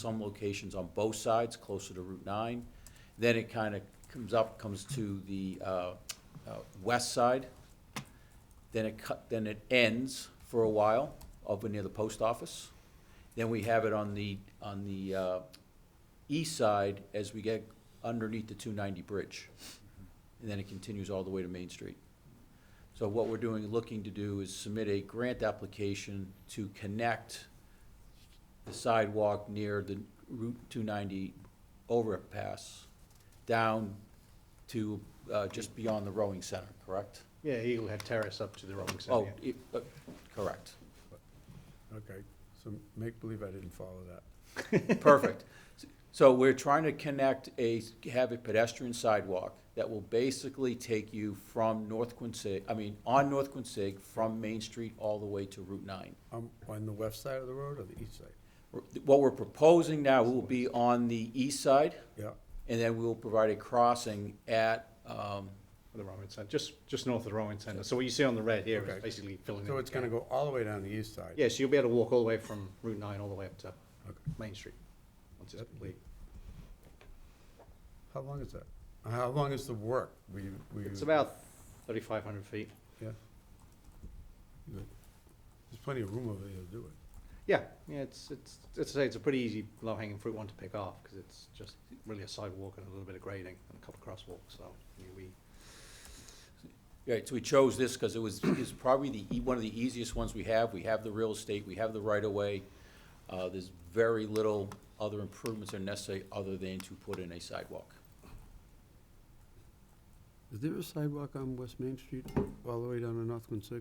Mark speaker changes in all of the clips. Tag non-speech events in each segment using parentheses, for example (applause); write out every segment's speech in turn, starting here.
Speaker 1: some locations on both sides, closer to Route 9. Then it kind of comes up, comes to the uh, uh, west side. Then it cut, then it ends for a while over near the post office. Then we have it on the, on the uh, east side as we get underneath the 290 bridge. And then it continues all the way to Main Street. So what we're doing, looking to do is submit a grant application to connect the sidewalk near the Route 290 overpass down to uh, just beyond the rowing center, correct?
Speaker 2: Yeah, Eagle Head Terrace up to the Rowing
Speaker 1: Oh,
Speaker 2: Center. yeah.
Speaker 1: it- uh, correct.
Speaker 3: Okay, so make believe I didn't follow that.
Speaker 1: Perfect. (laughs) So we're trying to connect a, have a pedestrian sidewalk that will basically take you from North Quincy, I mean, on North Quincy, from Main Street all the way to Route 9.
Speaker 3: Um, on the west side of the road or the east side?
Speaker 1: What we're proposing now will be on the east side,
Speaker 3: Yeah,
Speaker 1: and then we will provide a crossing at, um,
Speaker 2: The Rowing Center, just, just north of the Rowing Center. So what you see on the red here
Speaker 3: Okay.
Speaker 2: is basically filling in.
Speaker 3: so
Speaker 2: the
Speaker 3: it's gonna
Speaker 2: gap.
Speaker 3: go all the way down the east side?
Speaker 2: Yeah, so you'll be able to walk all the way from Route 9 all the way up to
Speaker 3: Okay.
Speaker 2: Main Street, once it's complete.
Speaker 3: How long is that? How long is the work? Will you, will you?
Speaker 2: It's about 3,500 feet.
Speaker 3: Yeah. There's plenty of room over there to do it.
Speaker 2: Yeah, yeah, it's, it's, it's, it's a pretty easy low-hanging fruit one to pick off, because it's just really a sidewalk and a little bit of grading and a couple of crosswalks, so yeah, we,
Speaker 1: Right, so we chose this because it was, is probably the, e- one of the easiest ones we have. We have the real estate, we have the right-of-way. Uh, There's very little other improvements are necessary other than to put in a sidewalk.
Speaker 3: Is there a sidewalk on West Main Street all the way down to North Quincy?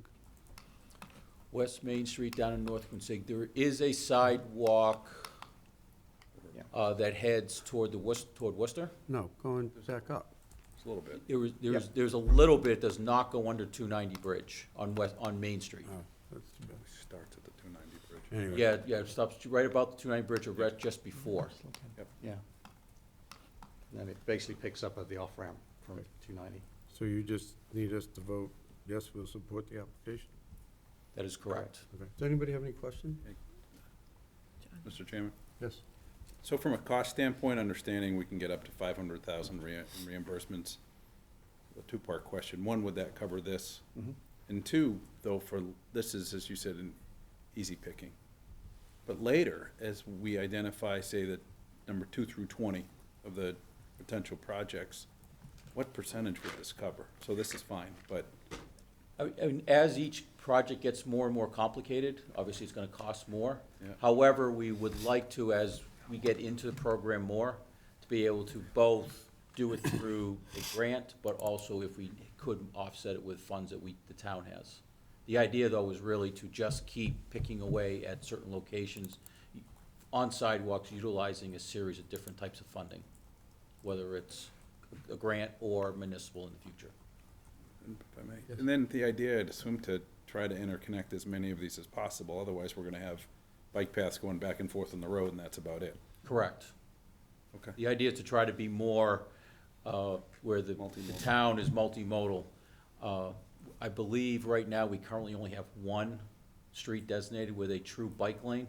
Speaker 1: West Main Street down in North Quincy, there is a sidewalk
Speaker 2: Yeah.
Speaker 1: uh, that heads toward the West, toward Worcester.
Speaker 3: No, going back up.
Speaker 4: It's a little bit.
Speaker 1: There was, there was, there's a little bit that does not go under two ninety bridge on West, on Main Street.
Speaker 3: Oh, that's too bad.
Speaker 4: Starts at the two ninety bridge.
Speaker 3: Anyway.
Speaker 1: Yeah, yeah, it stops right about the two ninety bridge or right just before.
Speaker 2: yeah. And then it basically picks up at the off-ramp from 290.
Speaker 3: So you just need us to vote, yes, we'll support the application?
Speaker 1: That is correct.
Speaker 3: Okay. Does anybody have any question?
Speaker 4: Mr. Chairman?
Speaker 3: Yes.
Speaker 4: So from a cost standpoint, understanding we can get up to five hundred thousand reimbursements. A two-part question. One, would that cover this? And two, though, for, this is, as you said, an easy picking. But later, as we identify, say, that number two through twenty of the potential projects, what percentage would this cover? So this is fine, but
Speaker 1: I mean, as each project gets more and more complicated, obviously it's gonna cost more.
Speaker 4: Yeah.
Speaker 1: However, we would like to, as we get into the program more, to be able to both do it through a grant, but also if we could offset it with funds that we, the town has. The idea, though, is really to just keep picking away at certain locations on sidewalks, utilizing a series of different types of funding, whether it's a grant or municipal in the future.
Speaker 4: if I may. And then the idea, I'd assume to try to interconnect as many of these as possible, otherwise we're gonna have bike paths going back and forth on the road and that's about it.
Speaker 1: Correct.
Speaker 4: Okay.
Speaker 1: The idea is to try to be more, uh, where the, the
Speaker 4: Multimodal.
Speaker 1: town is multimodal. Uh, I believe right now, we currently only have one street designated with a true bike lane,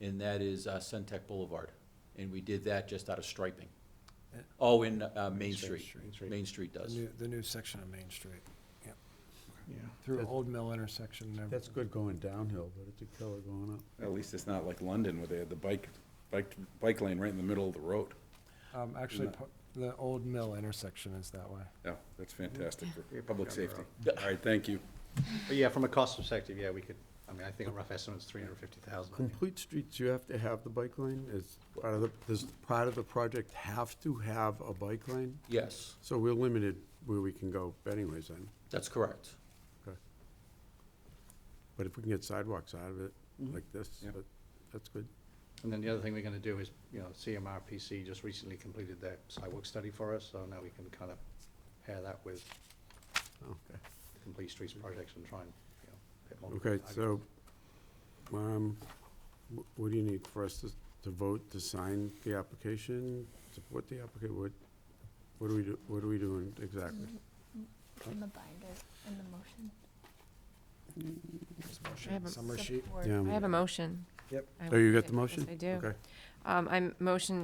Speaker 1: and that is uh, Centec Boulevard. And we did that just out of striping.
Speaker 5: Yeah.
Speaker 1: Oh, in uh, Main
Speaker 2: Street,
Speaker 1: Street.
Speaker 2: Main Street.
Speaker 1: Main Street
Speaker 5: The
Speaker 1: does.
Speaker 5: new, the new section of Main Street,
Speaker 2: Yeah.
Speaker 5: through
Speaker 3: That's-
Speaker 5: Old Mill intersection and everything.
Speaker 3: That's good going downhill, but it's a killer going up.
Speaker 4: At least it's not like London where they had the bike, bike, bike lane right in the middle of the road.
Speaker 5: Um, actually,
Speaker 4: that-
Speaker 5: pa- the Old Mill intersection is that way.
Speaker 4: Yeah, that's fantastic for public
Speaker 2: Yeah.
Speaker 4: safety. All right, thank you.
Speaker 2: But yeah, from a cost perspective, yeah, we could, I mean, I think a rough estimate's 350,000. I think.
Speaker 3: Complete streets, you have to have the bike lane, is part of the, does part of the project have to have a bike lane?
Speaker 1: Yes,
Speaker 3: So we're limited where we can go anyways then,
Speaker 1: that's correct.
Speaker 3: okay. But if we can get sidewalks out of it, like this,
Speaker 4: Yeah.
Speaker 3: that- that's good.
Speaker 2: And then the other thing we're gonna do is, you know, CMRPC just recently completed their sidewalk study for us, so now we can kind of pair that with
Speaker 3: Okay.
Speaker 2: complete streets projects and try and, you know, bit more.
Speaker 3: Okay, so, um, wh- what do you need for us to, to vote, to sign the application, support the application? What, what are we, do- what are we doing exactly?
Speaker 6: Mm-hmm.
Speaker 7: in the binder, in the motion.
Speaker 5: This
Speaker 6: I
Speaker 5: motion
Speaker 6: have a
Speaker 5: Summary sheet.
Speaker 6: support-
Speaker 3: Yeah.
Speaker 6: I have a motion.
Speaker 2: Yep.
Speaker 6: I
Speaker 3: Oh, you
Speaker 6: will.
Speaker 3: got the motion?
Speaker 6: Yes, I do.
Speaker 3: Okay.
Speaker 6: Um, I'm motion